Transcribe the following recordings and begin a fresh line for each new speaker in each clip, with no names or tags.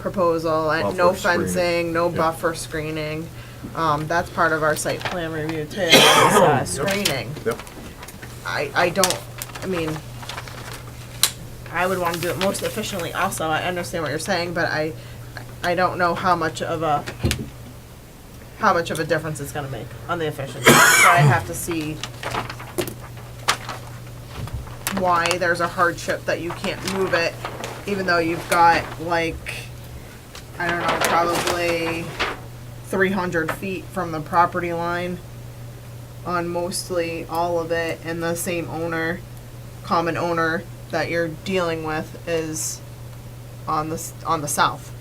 proposal, and no
Buffer screening.
fencing, no
Yeah.
buffer screening. Um, that's part of our site plan review too, is, uh, screening.
Yep.
I, I don't, I mean, I would wanna do it most efficiently also, I understand what you're saying, but I, I don't know how much of a, how much of a difference it's gonna make on the efficiency, so I have to see why there's a hardship that you can't move it, even though you've got like, I don't know, probably three hundred feet from the property line on mostly all of it and the same owner, common owner that you're dealing with is on the, s- on the south.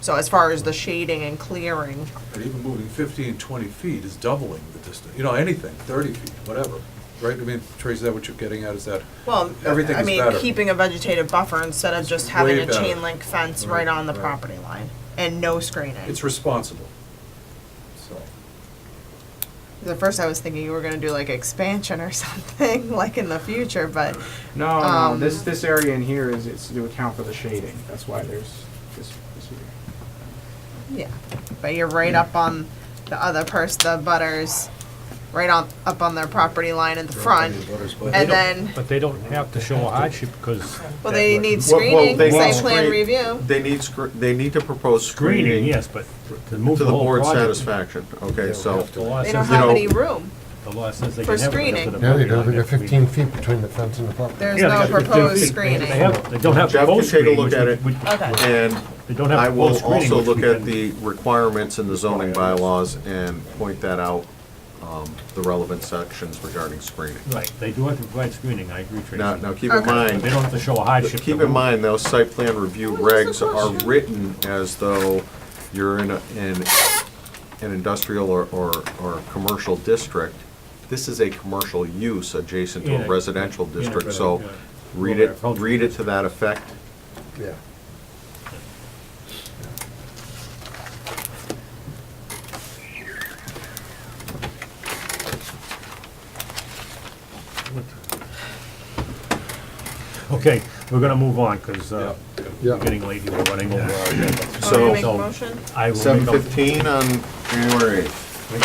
So as far as the shading and clearing,
But even moving 15, 20 feet is doubling the distance, you know, anything, 30 feet, whatever, right? I mean, Tracy, is that what you're getting at, is that?
well,
Everything
I
is
mean,
better.
keeping a vegetative buffer instead of just having
way
a
better.
chain link fence right
Right,
on the
right.
property line and no screening.
It's responsible, so.
At first, I was thinking you were gonna do like expansion or something, like in the future, but
No, no,
Um,
this, this area in here is, it's to account for the shading, that's why there's this, this here.
yeah. But you're right up on the other person, the butters, right on, up on their property line in the front. And then,
But they don't have to show a hardship because.
well, they need
Well, well,
screening,
they
site
need
plan
screen-
review.
They need, scr- they need to propose
Screening,
screening to
yes, but to move the
the
whole
board's
project.
satisfaction, okay, so.
The law
They don't
says,
have
know-
any room.
the law says they
for
can have it
screening.
up to the.
Yeah,
property
they do,
line
they
if
got
we-
fifteen feet between the fence and the property.
There's
Yeah, they
no
got 15
proposed
feet.
screening.
They have, they don't have
Jeff can
proposed
take a
screening.
look
which
at
we-
it.
which-
Okay.
And
They don't have
I
proposed
will
screening.
also
which we
look at
can-
the requirements in the zoning bylaws and point that out, um, the relevant sections regarding screening.
Right, they do have to provide screening, I agree, Tracy.
Now, now
But
keep in
Okay.
They
mind,
don't have to show a hardship.
keep
to
in mind, those site plan review regs are
question?
written as though you're in a, in an industrial or, or, or a commercial district. This is a commercial use adjacent to
Yeah.
a residential
Yeah,
district,
right,
so
yeah.
read it, read it to that effect.
Yeah.
Okay, we're gonna move on because, uh,
Yeah.
we're getting late, here. we're running over. our
Want
agenda.
me to
So-
make a motion?
I will make a.
Seven fifteen on January eighth,
We'll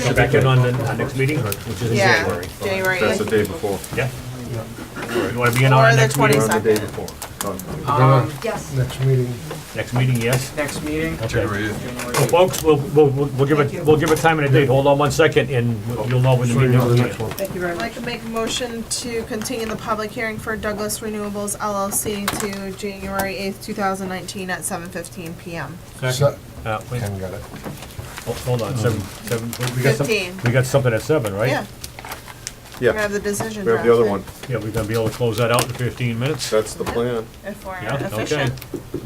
come back in on the, our next meeting, which is in
Yeah,
January.
January
that's the
eighth.
day before.
Yeah. You wanna be in on
Or
our
the
next meeting?
Or the day
22nd.
before.
Um,
Yes.
Next meeting,
Next meeting, yes?
next meeting,
Okay.
January eighth.
Well, Folks, we'll, we'll, we'll we'll give it, we'll give it time and a date, hold on one second, and you'll know when the
so you
meeting
know the
is.
next one.
Thank you very
I'd like to make a motion to continue the public hearing for Douglas Renewables LLC to January eighth, two thousand nineteen at seven fifteen PM.
Se-
Uh, wait,
Ken got it.
ho- hold on, seven, seven, we got some,
Fifteen.
we got something at seven, right?
Yeah, we're gonna
Yeah,
have the decision
we have
drafted.
the other one,
Yeah, we're gonna be able to close that out in fifteen minutes?
that's the plan.
If we're
Yeah, okay.
efficient.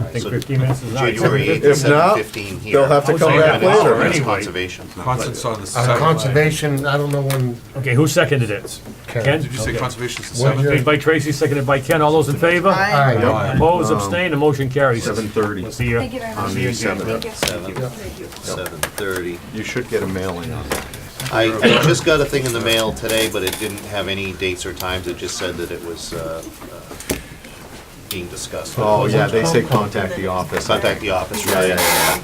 I think fifteen minutes is not.
January
If
8th,
not,
7:15 here.
they'll have to
I would
come
say
back
an hour
later.
That's
anyway.
conservation.
Constant's on the
On
side.
conservation, I don't know when
Okay, who seconded it? Ken?
Ken,
Did you say
Okay.
conservation's the
What
seventh?
year?
Made by Tracy, seconded by Ken, all those in favor?
Aye.
aye,
Yep.
Opposed, abstained, the motion carries.
Seven thirty.
We'll see you.
Thank you very much.
On the
Thank
seventh,
Thank you.
Seven, seven thirty.
you should get a mailing on that.
I, I just got a thing in the mail today, but it didn't have any dates or times. It just said that it was, uh, uh, being discussed.
Oh, yeah, they say contact the office.
Contact the office,
Yeah, yeah,
right?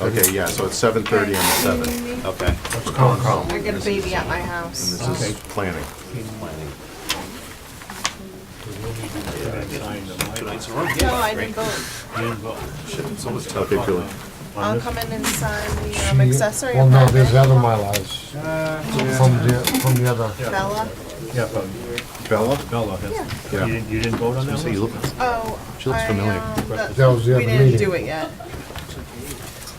yeah. Okay, yeah, so it's seven thirty on the seventh.
Okay.
I got a baby at my house,
This
so-
is planning.
Tonight's a run.
No, I didn't vote.
Okay, Julie.
I'll come in and sign the um, accessory
well, no, there's
apartment.
other mylaws from the, from the other.
Bella,
Yeah, from
Bella?
Bella, that's, you
Yeah.
didn't, you didn't vote on that one?
oh,
She looks
I,
familiar.
um, that-
That was the
we
other
didn't do
meeting.
it yet.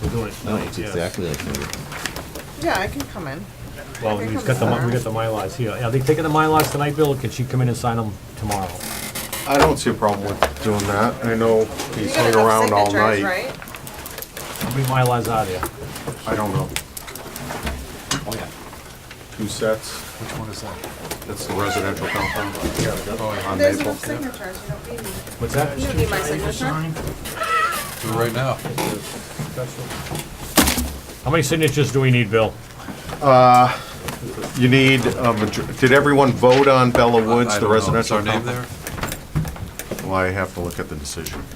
We're doing it tonight, yes.
like her.
Yeah, I can come in.
Well,
I
we've
think
got the,
I'm
mi- we got the Mylars here. Are they taking the Mylars tonight, Bill, or can she come in and sign them tomorrow?
I don't see a problem with doing that. I know
You
he's
got
hung
enough
around all
signatures,
night.
right?
How many Mylars are there?
I don't know.
Oh,
Two sets. Which one is that? That's the residential
Oh,
compound on
There's
Maple.
enough signatures, you don't need me.
What's that?
You don't need my signature.
Do it right now.
How many signatures do we need, Bill?
You need, a major- did everyone vote on Bella Woods,
I
the
don't know. Is
residential
our name
compound?
there?
Well, I have to look at the decision.